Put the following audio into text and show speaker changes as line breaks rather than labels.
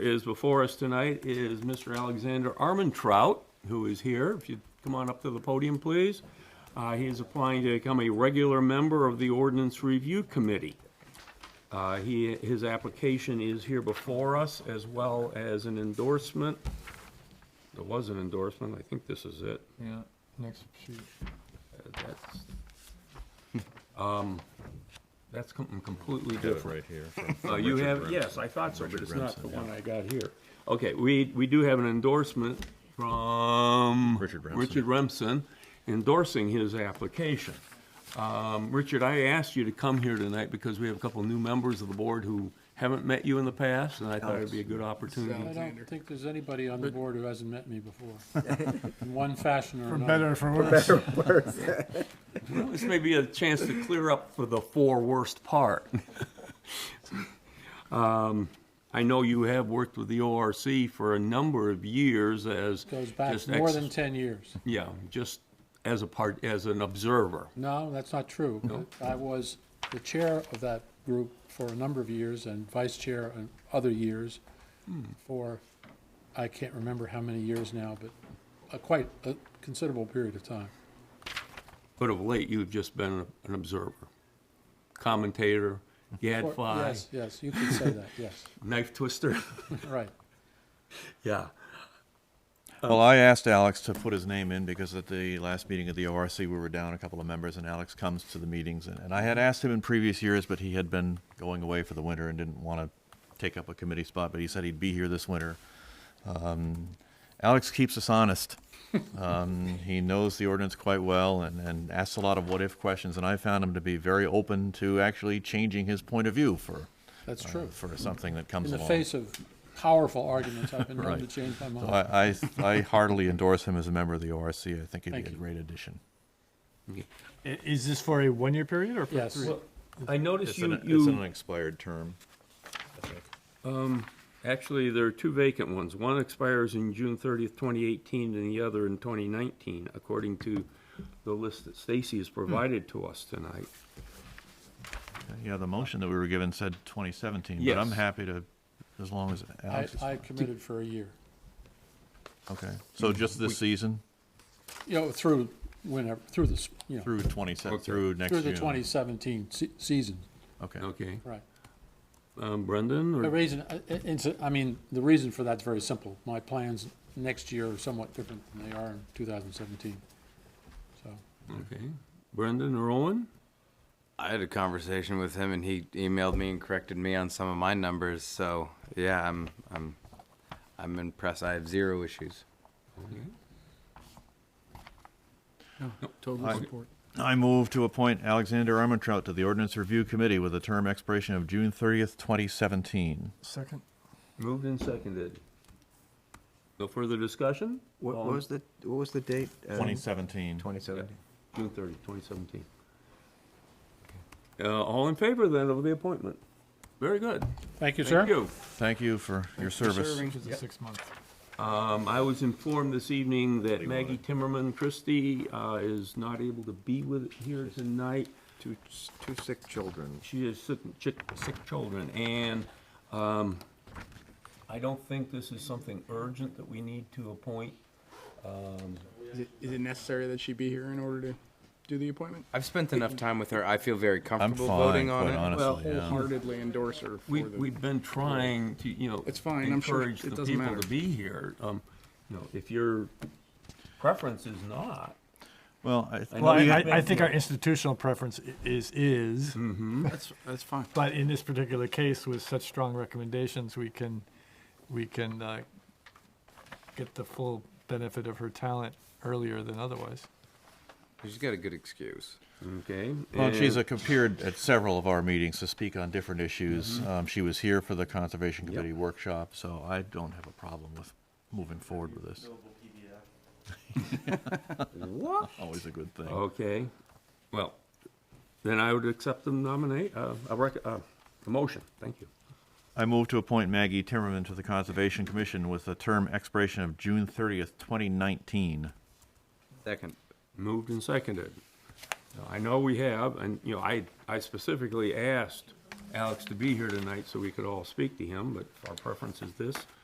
is before us tonight is Mr. Alexander Armentrout, who is here. If you'd come on up to the podium, please. Uh, He is applying to become a regular member of the Ordinance Review Committee. Uh, He, his application is here before us, as well as an endorsement. There was an endorsement, I think this is it.
Yeah, next sheet.
Uh, That's, um, that's com- completely different.
Right here.
Uh, you have, yes, I thought so, but it's not the one I got here. Okay, we, we do have an endorsement from.
Richard Remsen.
Richard Remsen endorsing his application. Um, Richard, I asked you to come here tonight because we have a couple new members of the board who haven't met you in the past, and I thought it'd be a good
I
opportunity.
don't think there's anybody on the board who hasn't met me before, in one fashion or
For
another.
better, for worse.
This may be a chance to clear up for the four worst part. Um, I know you have worked with the ORC for a number of years as.
Goes back
just
more
ex-
than ten years.
Yeah, just as a part, as an observer.
No, that's not true. I was the chair of that group for a number of years and vice chair in other years for, I can't remember how many years now, but a quite a considerable period of time.
But of late, you've just been an observer, commentator, gadfly,
Yes, yes, you could say that, yes,
knife twister.
right.
Yeah.
Well, I asked Alex to put his name in because at the last meeting of the ORC, we were down a couple of members and Alex comes to the meetings. And, and I had asked him in previous years, but he had been going away for the winter and didn't want to take up a committee spot, but he said he'd be here this winter. Um, Alex keeps us honest. Um, he knows the ordinance quite well and, and asks a lot of what-if questions. And I found him to be very open to actually changing his point of view for,
That's
uh,
true.
for something that comes
In the
along.
face of powerful arguments, I've been known to
Right.
change my
So
mind.
I, I, I heartily endorse him as a member of the ORC. I think he'd
Thank
be a
you.
great addition.
Is this for a one-year period or for
Yes.
three?
Well,
I noticed you,
it's an
you,
unexpired term.
actually, there are two vacant ones. One expires in June thirtieth, twenty eighteen, and the other in twenty nineteen, according to the list that Stacy has provided to us tonight.
Yeah, the motion that we were given said 2017, but I'm
Yes.
happy to, as long as
I,
Alex is.
I committed for a year,
Okay, so just this season
you know, through whenever, through the, s- you know,
through 20,
Okay.
through next
through
June?
the 2017 se- season,
Okay.
Okay,
right.
um, Brendan
The
or?
reason, I- I- it's, I mean, the reason for that's very simple. My plans next year are somewhat different than they are in 2017. So,
Okay, Brendan or Owen?
I had a conversation with him, and he emailed me and corrected me on some of my numbers. So yeah, I'm I'm I'm impressed. I have zero issues.
total
I-
support.
I move to appoint Alexander Armentrout to the Ordinance Review Committee with a term expiration of June 30th, 2017.
Second.
Moved and seconded. No further discussion?
What
All
what
in-
was the, what was the date?
2017.
Twenty seventeen.
June 30, 2017. Uh, All in favor then of the appointment? Very good.
Thank you,
Thank
sir.
you.
Thank you for your service.
Which is a six-month.
Um, I was informed this evening that Maggie Timmerman Christie uh, is not able to be with, here tonight.
Two, two sick children.
She has sick, chick- sick children, and um, I don't think this is something urgent that we need to appoint.
Is it, is it necessary that she be here in order to do the appointment?
I've spent enough time with her. I feel very
I'm
comfortable
fine,
voting on
quite
it.
honestly, yeah.
Wholeheartedly endorse her for
We,
the,
we've been trying to, you know.
It's fine, I'm sure
Encourage
it
the
doesn't
people
matter.
to be here. Um, you know, if your preference is not,
Well,
I
I,
know
Well, I,
you-
I I think our institutional preference i- is, is,
that's, that's fine.
but in this particular case, with such strong recommendations, we can, we can, uh, get the full benefit of her talent earlier than otherwise.
She's got a good excuse.
okay?
Well, she's a- appeared at several of our meetings to speak on different issues. Um, She was here for the Conservation Committee workshop, so I don't have a problem with moving forward with this.
What? Oh.
Always a good thing.
Okay, well, then I would accept the nominate, uh, a rec, uh, the motion, thank you.
I move to appoint Maggie Timmerman to the Conservation Commission with a term expiration of June 30th, 2019.
Second.
Moved and seconded. Now, I know we have, and, you know, I, I specifically asked Alex to be here tonight so we could all speak to him, but our preference is this.